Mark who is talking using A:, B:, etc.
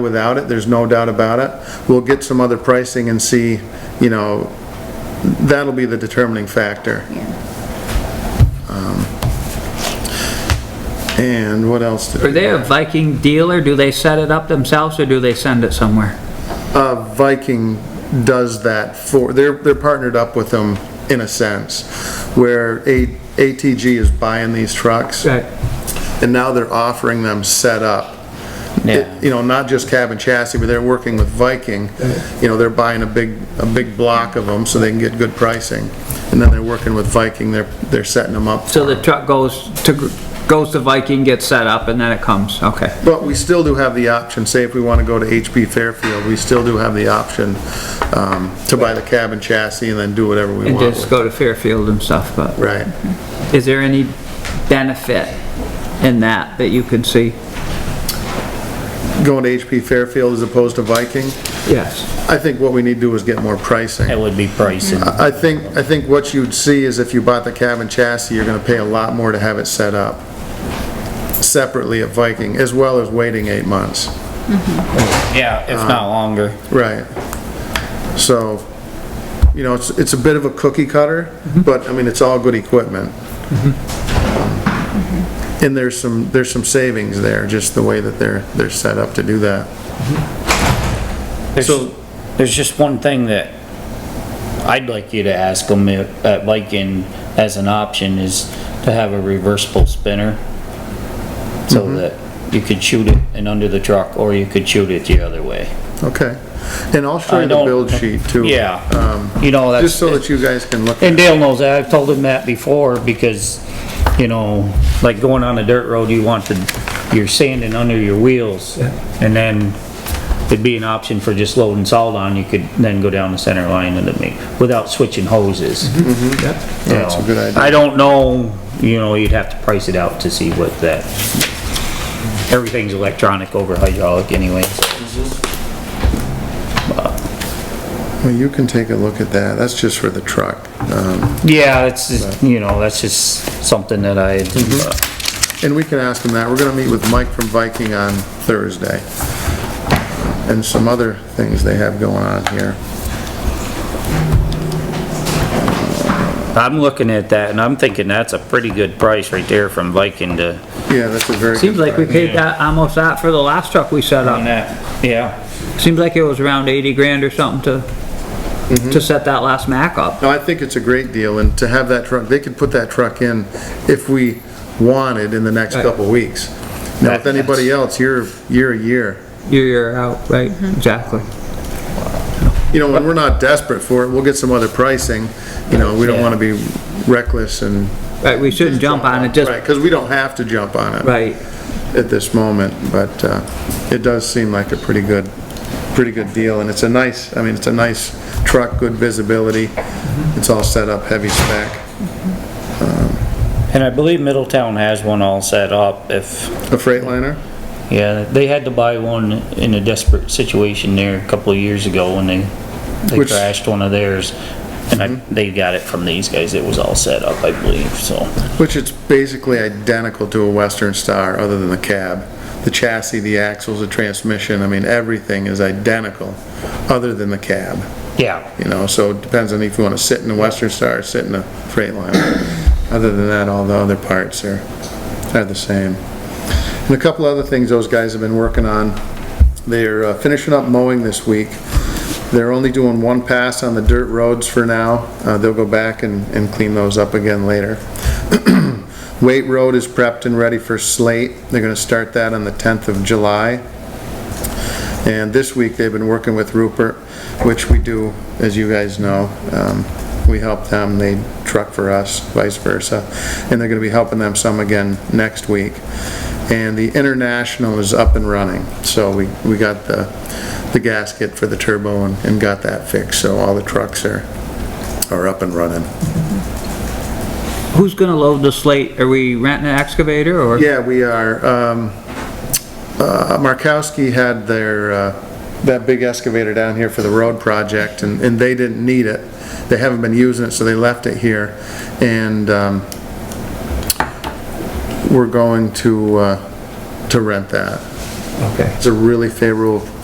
A: without it, there's no doubt about it. We'll get some other pricing and see, you know, that'll be the determining factor. Um,
B: Yeah.
A: And what else? did-
C: Are they a Viking dealer? Do they set it up themselves or do they send it somewhere?
A: Uh, Viking does that for, they're, they're partnered up with them in a sense, where A- ATG is buying these trucks. And now they're offering them set up.
C: Yeah.
A: You know, not just cab and chassis, but they're working with Viking. You know, they're buying a big, a big block of them so they can get good pricing. And then they're working with Viking, they're, they're setting them up.
C: So the truck goes to, goes to Viking, gets set up and then it comes, okay.
A: But we still do have the option, say if we want to go to HP Fairfield, we still do have the option um, to buy the cab and chassis and then do whatever we
C: And
A: want
C: just
A: with it.
C: go to Fairfield and stuff, but
A: Right.
C: is there any benefit in that that you can see?
A: Going to HP Fairfield as opposed to Viking,
C: Yes.
A: I think what we need to do is get more pricing.
D: It would be pricing.
A: I think, I think what you'd see is if you bought the cab and chassis, you're gonna pay a lot more to have it set up separately at Viking, as well as waiting eight months.
D: Yeah, if not longer.
A: Right. So, you know, it's, it's a bit of a cookie cutter, but, I mean, it's all good equipment. Mm-hmm. And there's some, there's some savings there, just the way that they're, they're set up to do that.
D: There's, there's just one thing that I'd like you to ask them uh, if, at Viking as an option is to have a reversible spinner. So that you could shoot it and under the truck, or you could shoot it the other way.
A: Okay. And I'll show
D: I
A: you the
D: don't-
A: build sheet too. Um,
D: Yeah, you know, that's.
A: Just so that you guys can look.
D: And Dale knows that, I've told him that before, because, you know, like going on a dirt road, you want the, you're sanding under your wheels. And then it'd be an option for just loading salt on, you could then go down the center line and it make, without switching hoses. You
A: Mm-hmm. That's a
D: know,
A: good idea.
D: I don't know, you know, you'd have to price it out to see what that, everything's electronic over hydraulic anyway.
A: Well, you can take a look at that, that's just for the truck. Um,
D: Yeah, it's, just, you know, that's just something that I,
A: Mm-hmm.
D: uh,
A: And we can ask him that, we're gonna meet with Mike from Viking on Thursday. And some other things they have going on here.
D: I'm looking at that and I'm thinking that's a pretty good price right there from Viking to.
A: Yeah, that's a very.
C: Seems
A: good
C: like we
A: question.
C: paid that, almost that for the last truck we set up.
D: that, yeah.
C: Seems like it was around eighty grand or something to, to set that last Mac up.
A: No, I think it's a great deal, and to have that truck, they could put that truck in if we wanted in the next
C: Right.
A: couple weeks. Now, with
D: That-
A: anybody else, you're, you're a year.
C: You're, you're out, right? Exactly.
A: You know, when we're not desperate for it, we'll get some other pricing, you know, we don't
D: Yeah.
A: wanna be reckless and.
C: Right, we shouldn't jump on it, just,
A: Right, cause we don't have to jump on it.
C: right.
A: at this moment, but uh, it does seem like a pretty good, pretty good deal, and it's a nice, I mean, it's a nice truck, good visibility, it's all set up, heavy spec.
D: And I believe Middletown has one all set up if,
A: A Freightliner?
D: yeah, they had to buy one in a desperate situation there a couple of years ago when they, they
A: Which-
D: crashed one of theirs. And I, they got it from these guys. It was all set up, I believe, so.
A: Which it's basically identical to a Western Star, other than the cab. The chassis, the axles, the transmission, I mean, everything is identical, other than the cab,
D: Yeah.
A: you know, so it depends on if you want to sit in a Western Star or sit in a Freightliner. Other than that, all the other parts are, are the same. And a couple other things those guys have been working on. They're uh, finishing up mowing this week. They're only doing one pass on the dirt roads for now. Uh, They'll go back and, and clean those up again later. Waite Road is prepped and ready for slate. They're gonna start that on the 10th of July. And this week, they've been working with Rupert, which we do, as you guys know. Um, We help them, they truck for us, vice versa. And they're gonna be helping them some again next week. And the International is up and running. So we, we got the, the gasket for the turbo and, and got that fixed. So all the trucks are, are up and running.
C: Who's gonna load the slate? Are we renting an excavator or?
A: Yeah, we are. Um, uh, Markowski had their, uh, that big excavator down here for the road project, and, and they didn't need it. They haven't been using it, so they left it here. And um, we're going to, uh, to rent that.
C: Okay.
A: It's a really favorable